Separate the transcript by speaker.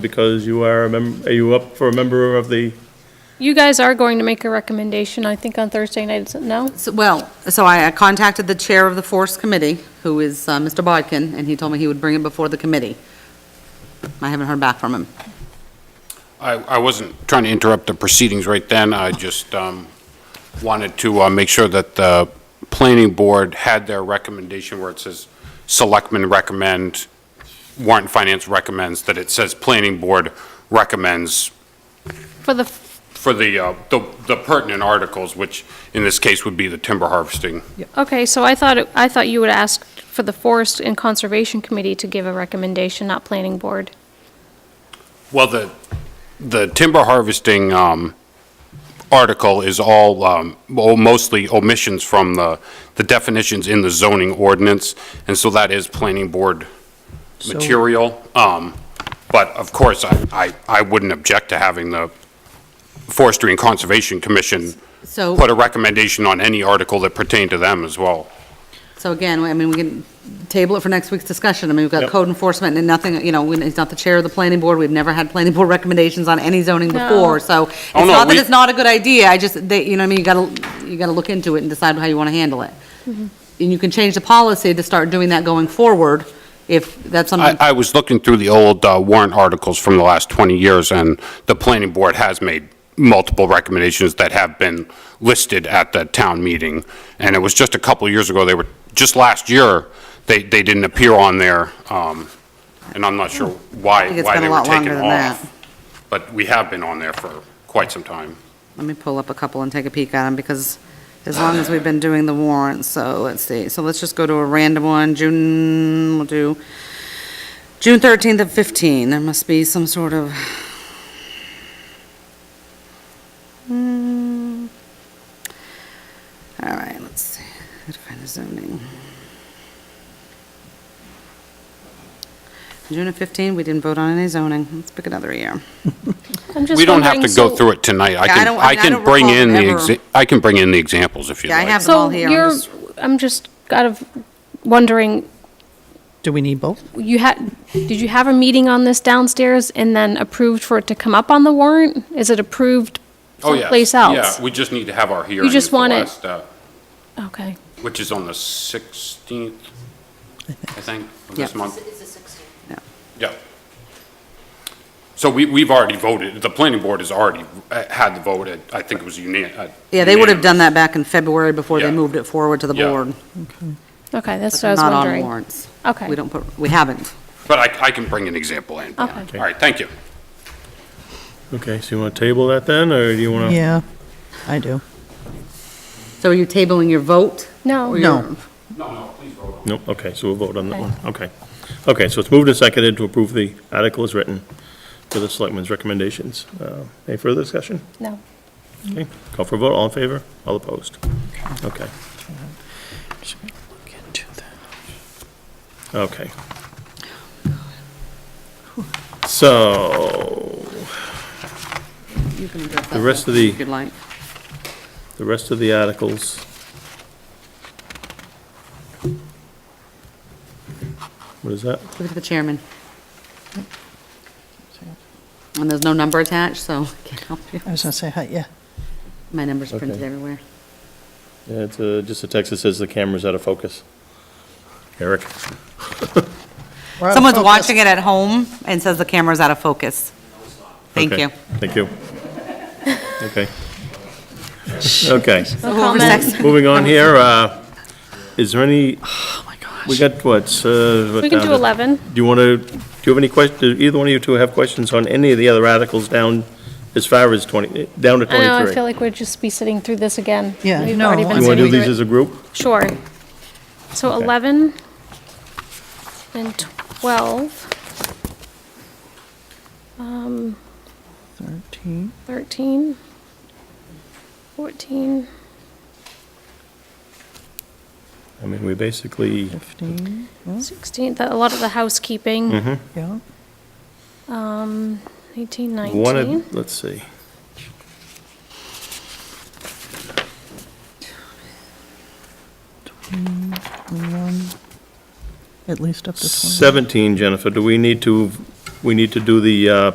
Speaker 1: because you are a mem, are you up for a member of the,
Speaker 2: You guys are going to make a recommendation, I think, on Thursday night, is it no?
Speaker 3: So- Well, so I I contacted the chair of the force committee, who is uh, Mr. Bodkin, and he told me he would bring it before the committee. I haven't heard back from him.
Speaker 4: I, I wasn't trying to interrupt the proceedings right then, I just um, wanted to uh, make sure that the planning board had their recommendation where it says, "Selectmen recommend," warrant and finance recommends, that it says, "Planning board recommends,"
Speaker 2: For the,
Speaker 4: for the, uh, the the pertinent articles, which in this case would be the timber harvesting.
Speaker 2: okay, so I thought, it- I thought you would ask for the Forest and Conservation Committee to give a recommendation, not Planning Board.
Speaker 4: Well, the, the timber harvesting um, article is all, um, well, mostly omissions from the, the definitions in the zoning ordinance, and so that is planning board material. Um, But of course, I, I, I wouldn't object to having the Forestry and Conservation Commission
Speaker 3: So-
Speaker 4: put a recommendation on any article that pertained to them as well.
Speaker 3: So again, I mean, we can table it for next week's discussion. I mean, we've got
Speaker 1: Yep.
Speaker 3: code enforcement and nothing, you know, we- he's not the chair of the planning board. We've never had planning board recommendations on any zoning
Speaker 2: No.
Speaker 3: before, so it's
Speaker 4: Oh, no,
Speaker 3: not that
Speaker 4: we-
Speaker 3: it's not a good idea, I just, they, you know, what I mean, you gotta, you gotta look into it and decide how you wanna handle it. And you can change the policy to start doing that going forward, if that's something.
Speaker 4: I, I was looking through the old uh, warrant articles from the last 20 years, and the planning board has made multiple recommendations that have been listed at the town meeting. And it was just a couple years ago, they were, just last year, they, they didn't appear on there, um, and I'm not sure why,
Speaker 3: Hmm. think it's
Speaker 4: why
Speaker 3: been a
Speaker 4: they were
Speaker 3: lot longer
Speaker 4: taken
Speaker 3: than that.
Speaker 4: off. But we have been on there for quite some time.
Speaker 3: Let me pull up a couple and take a peek at them, because as long as we've been doing the warrants, so let's see. So let's just go to a random one, June, we'll do, June 13th of 15, there must be some sort of, Hmm. all right, let's see, how to find the zoning. June of 15, we didn't vote on any zoning, let's pick another year.
Speaker 4: We don't have to go through it tonight. I
Speaker 3: Yeah, I
Speaker 4: can,
Speaker 3: don't- I
Speaker 4: I
Speaker 3: don't
Speaker 4: can bring
Speaker 3: recall
Speaker 4: in the,
Speaker 3: ever-
Speaker 4: exa- I can bring in the examples if you'd
Speaker 3: Yeah, I
Speaker 4: like.
Speaker 3: have them all
Speaker 2: So
Speaker 3: here. I'm
Speaker 2: you're,
Speaker 3: just-
Speaker 2: I'm just kind of wondering,
Speaker 5: Do we need both?
Speaker 2: you had, did you have a meeting on this downstairs and then approved for it to come up on the warrant? Is it approved
Speaker 4: Oh, yes.
Speaker 2: someplace else?
Speaker 4: Yeah, we just need to have our hearing.
Speaker 2: just
Speaker 4: is the
Speaker 2: want it-
Speaker 4: last, uh,
Speaker 2: Okay,
Speaker 4: which is on the 16th, I think, of this
Speaker 3: Yeah.
Speaker 4: month.
Speaker 3: Yeah.
Speaker 4: Yeah. So we, we've already voted, the planning board has already uh, had the vote, It- I think it was unanimous.
Speaker 3: Yeah, they would have done that back in February before they
Speaker 4: Yeah.
Speaker 3: moved it forward to the
Speaker 4: Yeah.
Speaker 3: board.
Speaker 2: okay, that's what
Speaker 3: but
Speaker 2: I was
Speaker 3: Not on
Speaker 2: wondering.
Speaker 3: warrants.
Speaker 2: Okay.
Speaker 3: We don't put, we haven't.
Speaker 4: But I, I can bring an example in. All
Speaker 2: Okay.
Speaker 4: right, thank you.
Speaker 1: okay, so you want to table that then, or do you want to?
Speaker 5: Yeah, I do.
Speaker 3: So are you tabling your vote?
Speaker 2: No.
Speaker 3: Or your-
Speaker 5: No.
Speaker 4: No, no, please vote on
Speaker 1: No, okay, so we'll vote on that one, okay. Okay, so it's moved and seconded to approve the article as written for the selectmen's recommendations. Uh, Any further discussion?
Speaker 2: No.
Speaker 1: Okay, call for a vote, all in favor, all opposed? Okay, okay. So,
Speaker 3: You can address that
Speaker 1: The rest of
Speaker 3: if
Speaker 1: the-
Speaker 3: you'd like.
Speaker 1: the rest of the articles. What is that?
Speaker 3: Give it to the chairman. And there's no number attached, so I can't help you.
Speaker 5: I was gonna say, hi, yeah.
Speaker 3: My number's printed
Speaker 1: Okay.
Speaker 3: everywhere.
Speaker 1: Yeah, It's uh, just a text that says the camera's out of focus. Eric?
Speaker 5: We're out of
Speaker 3: Someone's
Speaker 5: focus.
Speaker 3: watching it at home and says the camera's out of focus. Thank
Speaker 1: Okay,
Speaker 3: you.
Speaker 1: Thank you. Okay. Okay,
Speaker 3: So whoever
Speaker 2: comment.
Speaker 3: second-
Speaker 1: moving on here, uh, is there any, we got what?
Speaker 2: We
Speaker 1: We
Speaker 2: can do 11.
Speaker 1: Do you want to, do you have any questions, either one of you two have questions on any of the other articles down, as far as 20, down to
Speaker 2: I
Speaker 1: 23?
Speaker 2: know, I feel like we'd just be sitting through this again.
Speaker 5: Yeah,
Speaker 2: We've
Speaker 5: no,
Speaker 2: already been
Speaker 5: I
Speaker 1: You want to
Speaker 2: sitting
Speaker 1: do
Speaker 2: through
Speaker 1: these
Speaker 2: it.
Speaker 1: as a group?
Speaker 2: Sure. So
Speaker 1: Okay.
Speaker 2: 11 and 12,
Speaker 5: 13.
Speaker 2: 13, 14,
Speaker 1: I mean, we basically,
Speaker 5: 15, yeah,
Speaker 2: 16, that- a lot of the housekeeping,
Speaker 5: yeah.
Speaker 2: 18,
Speaker 1: wanted,
Speaker 2: 19.
Speaker 1: let's see.
Speaker 5: at least up to 20. Um,
Speaker 1: 17, Jennifer, do we need to, we need to do the uh,